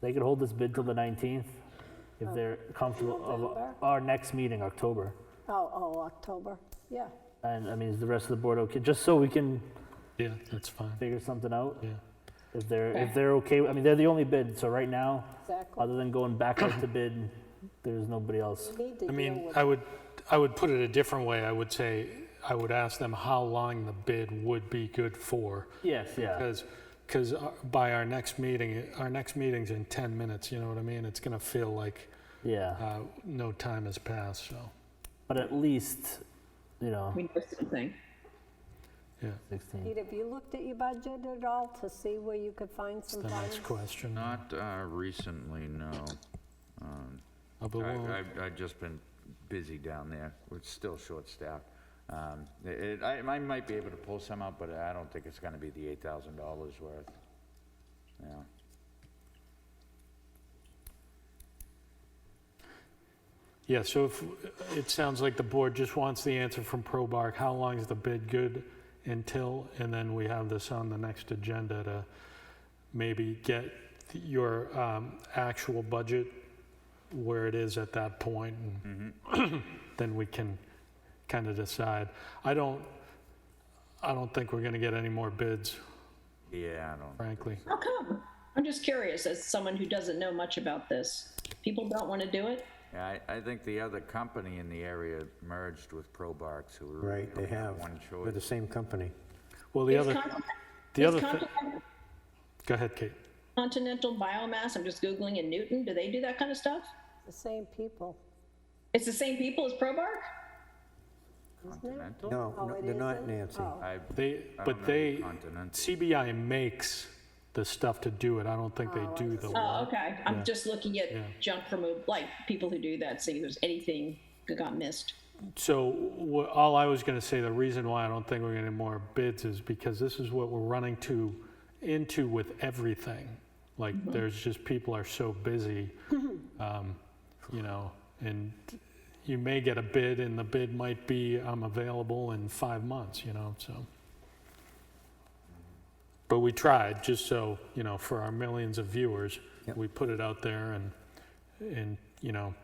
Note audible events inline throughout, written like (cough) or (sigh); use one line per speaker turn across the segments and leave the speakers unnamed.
They could hold this bid till the 19th if they're comfortable
November?
of our next meeting, October.
Oh, oh, October, yeah.
And I mean, is the rest of the board okay? Just so we can
Yeah, that's fine,
figure something out.
yeah.
If they're, if they're okay, I mean, they're the only bid, so right now,
Exactly.
other than going back out to bid, there's nobody else.
We need to
I
deal
mean,
with
I would, I would put it a different way. I would say, I would ask them how long the bid would be good for.
Yes, yeah.
Because, because by our next meeting, our next meeting's in 10 minutes, you know what I mean? It's going to feel like
Yeah,
uh, no time has passed, so,
but at least, you know,
We know something.
yeah.
16.
Pete, have you looked at your budget at all to see where you could find some
The
funds?
next question.
Not uh, recently, no. Um,
Uh, but
I-
we'll-
I've I've just been busy down there. We're still short-staffed. Um, it- I I might be able to pull some out, but I don't think it's going to be the $8,000 worth. Yeah.
Yeah, so if, it sounds like the board just wants the answer from Probark, how long is the bid good until? And then we have this on the next agenda to maybe get your um, actual budget where it is at that point, and (clears throat) then we can kind of decide. I don't, I don't think we're gonna get any more bids,
Yeah, I don't,
frankly.
How come? I'm just curious, as someone who doesn't know much about this, people don't want to do it?
Yeah, I I think the other company in the area merged with Probarks, who were...
Right, they
only
have.
One
They're the
choice.
same company.
Well, the
Is
other,
Continent-
the
is
other, thi-
Continent-
go ahead, Kate.
Continental Biomass, I'm just Googling in Newton, do they do that kind of stuff?
The same people.
It's the same people as Probark?
Continental?
No,
Oh,
no,
it
they're not,
isn't?
Nancy.
Oh.
I-
They,
I don't
but
know
they,
Continental.
CBI makes the stuff to do it. I don't think they do the
Oh,
work.
okay, I'm just looking at junk removal, like people who do that, see if there's anything that got missed.
So wha- all I was going to say, the reason why I don't think we're getting more bids is because this is what we're running to, into with everything. Like, there's just, people are so busy, um, you know, and you may get a bid and the bid might be, I'm available in five months, you know, so. But we tried, just so, you know, for our millions of viewers, we put it out there and, and, you know,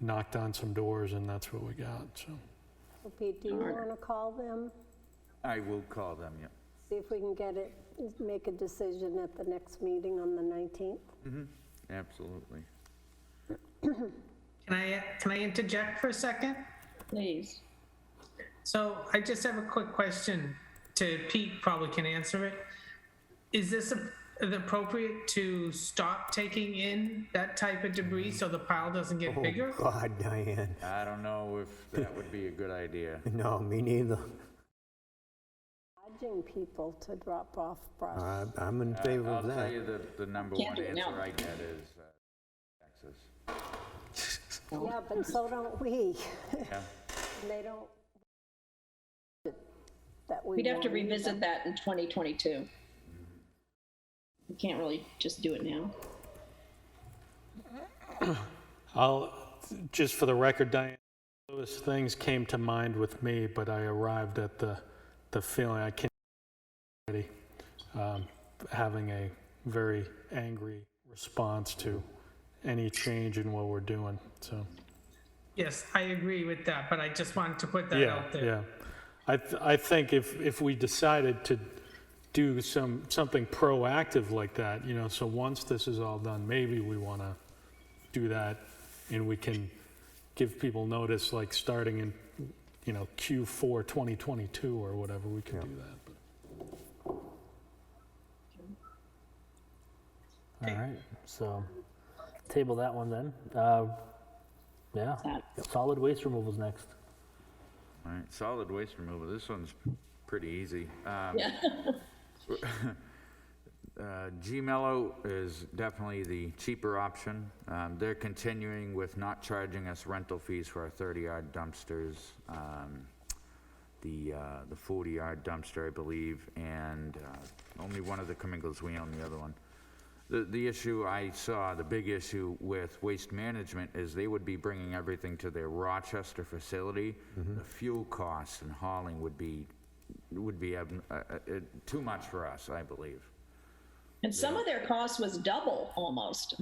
knocked on some doors and that's what we got, so.
So Pete, do you want to call them?
I will call them, yeah.
See if we can get it, make a decision at the next meeting on the 19th?
Absolutely.
Can I, can I interject for a second?
Please.
So I just have a quick question to Pete, probably can answer it. Is this a- appropriate to stop taking in that type of debris so the pile doesn't
Oh,
get bigger?
God, (laughs) Diane.
I don't know if that would be a good idea.
No, me neither.
Urging people to drop off
Uh,
brush.
I- I'm in favor
I'll
of
tell
that.
you the, the number
Can't
one
do it now.
answer I get is uh, taxes.
Yeah, but so don't we.
Yeah.
And (laughs) They don't. That we.
We'd have to
want either.
revisit that in 2022. We can't really just do it now.
I'll, just for the record, Diane, those things came to mind with me, but I arrived at the, the feeling I can't, already, um, having a very angry response to any change in what we're doing, so.
Yes, I agree with that, but I just wanted to put that
Yeah,
out there.
yeah. I, th- I think if, if we decided to do some, something proactive like that, you know, so once this is all done, maybe we want to do that and we can give people notice, like, starting in, you know, Q4 2022 or whatever, we can do that.
All right, so table that one then. Uh, Yeah, solid waste removal's next.
All right, solid waste removal, this one's pretty easy. Um,
Yeah.
Uh, Gmello is definitely the cheaper option. Um, They're continuing with not charging us rental fees for our 30-yard dumpsters, um, the uh, the 40-yard dumpster, I believe, and uh, only one of the Comingles, we own the other one. The The issue I saw, the big issue with Waste Management is they would be bringing everything to their Rochester facility. The fuel costs and hauling would be, would be ab- uh, uh, uh, too much for us, I believe.
And some of their cost was double almost